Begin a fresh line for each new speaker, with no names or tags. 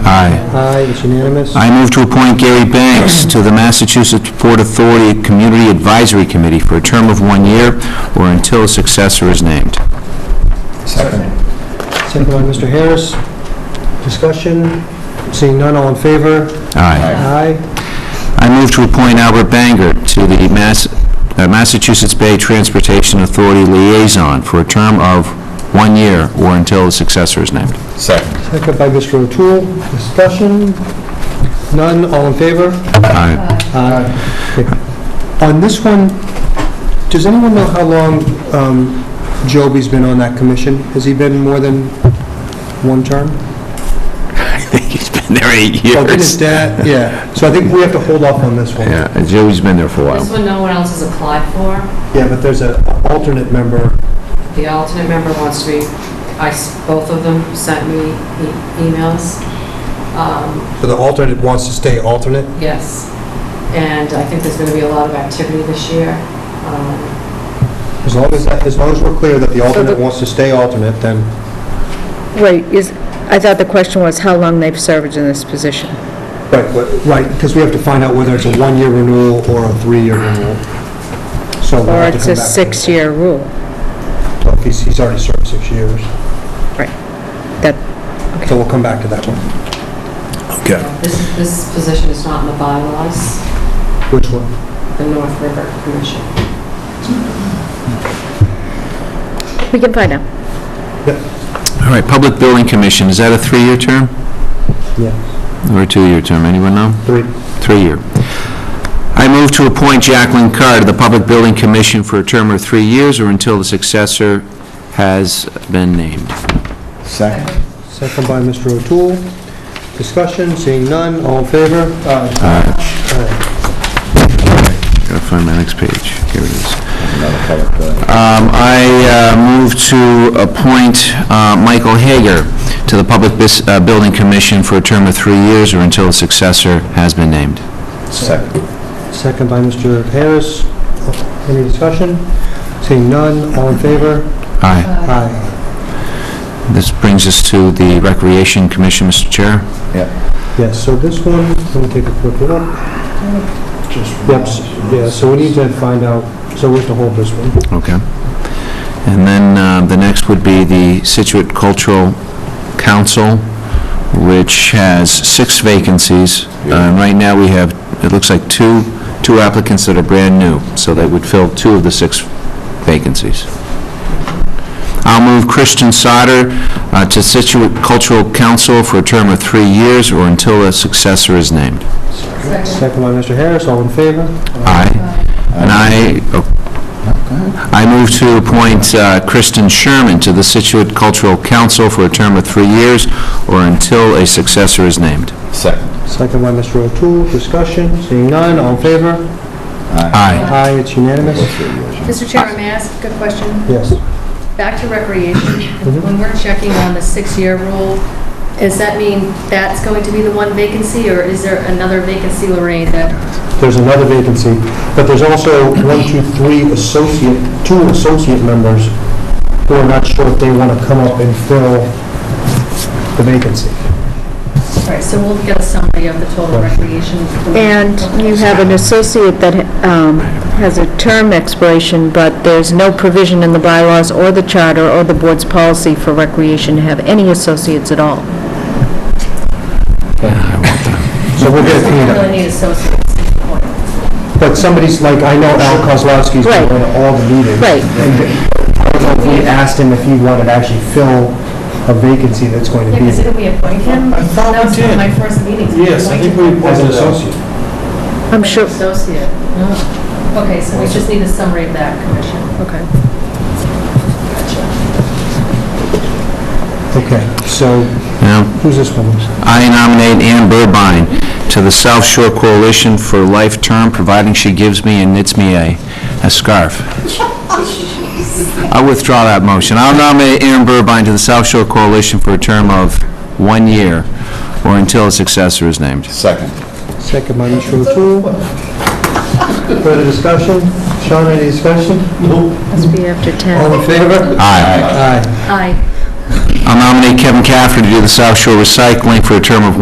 Aye.
Aye, it's unanimous.
I move to appoint Gary Banks to the Massachusetts Port Authority Community Advisory Committee for a term of one year or until a successor is named.
Second.
Second by Mr. Harris. Discussion, seeing none, all in favor?
Aye.
Aye.
I move to appoint Albert Banger to the Mass- uh, Massachusetts Bay Transportation Authority Liaison for a term of one year or until a successor is named.
Second.
Second by Mr. O'Toole. Discussion, none, all in favor?
Aye.
Aye. Okay. On this one, does anyone know how long um, Joby's been on that commission? Has he been more than one term?
I think he's been there eight
Oh, didn't his
years.
dad, yeah. So I think we have to hold off on this one.
Yeah, Joey's been there for a
This
while.
one no one else has applied for.
Yeah, but there's an alternate member.
The alternate member wants to be, I, s- both of them sent me e- emails. Um,
So the alternate wants to stay alternate?
Yes. And I think there's going to be a lot of activity this year. Um,
As long as, as long as we're clear that the alternate wants to stay alternate, then,
Wait, is, I thought the question was how long they've served in this position.
right, but- right, because we have to find out whether it's a one-year renewal or a three-year renewal. So we'll
Or
have to
it's
come
a
back.
six-year rule.
Well, He's, he's already served six years,
That,
so we'll come back to that one.
Okay.
This, this position is not in the bylaws,
Which one?
the North River Commission.
we can find out.
All right, Public Building Commission, is that a three-year term
Yeah,
or a two-year term? Anyone know?
three.
Three-year. I move to appoint Jacqueline Carr to the Public Building Commission for a term of three years or until the successor has been named.
Second.
Second by Mr. O'Toole. Discussion, seeing none, all in favor? Aye.
Gotta find my next page. Here it is.
Another public building.
Um, I uh, move to appoint uh, Michael Hager to the Public Bus- uh, Building Commission for a term of three years or until a successor has been named.
Second.
Second by Mr. Harris. Any discussion? Seeing none, all in favor?
Aye.
Aye.
This brings us to the Recreation Commission, Mr. Chair.
Yes, so this one, let me take a quick look. Yep, s- yeah, so we need to find out, so we have to hold this one.
Okay. And then um, the next would be the Situate Cultural Council, which has six vacancies. Uh, And right now, we have, it looks like two, two applicants that are brand new, so they would fill two of the six vacancies. I'll move Christian Sauter uh, to Situate Cultural Council for a term of three years or until a successor is named.
Second by Mr. Harris, all in favor?
Aye. And I, oh. I move to appoint uh, Kristen Sherman to the Situate Cultural Council for a term of three years or until a successor is named.
Second.
Second by Mr. O'Toole, discussion, seeing none, all in favor?
Aye.
Aye, it's unanimous.
Mr. Chairman, may I ask a question?
Yes.
Back to recreation, when we're checking on the six-year rule, does that mean that's going to be the one vacancy, or is there another vacancy, Lorraine, that,
There's another vacancy, but there's also one, two, three associate, two associate members who are not sure if they want to come up and fill the vacancy.
all right, so we'll get a summary of the total recreation.
And you have an associate that um, has a term expiration, but there's no provision in the bylaws or the charter or the board's policy for recreation to have any associates at all.
So we'll get it
We
cleaned up.
really need associates at this point.
But somebody's like, I know Al Kozlowski's been
Right.
going to all the meetings.
Right.
And I don't know if we asked him if he wanted to actually fill a vacancy that's going to
Yeah,
be.
because didn't we appoint him? I thought we did. That was my first meeting. Yes, I think we
As an associate.
I'm sure,
Associate. Oh. Okay, so we just need a summary of that, Commission. Okay.
Okay, so
Now,
who's this one?
I nominate Ann Burbine to the South Shore Coalition for a life term, providing she gives me and knits me a, a scarf. I withdraw that motion. I'll nominate Ann Burbine to the South Shore Coalition for a term of one year or until a successor is named.
Second.
Second by Mr. O'Toole. Further discussion? Sean, any discussion?
must be after 10.
All in favor?
Aye.
Aye.
Aye.
I'll nominate Kevin Cafferty to do the South Shore Recycling for a term of one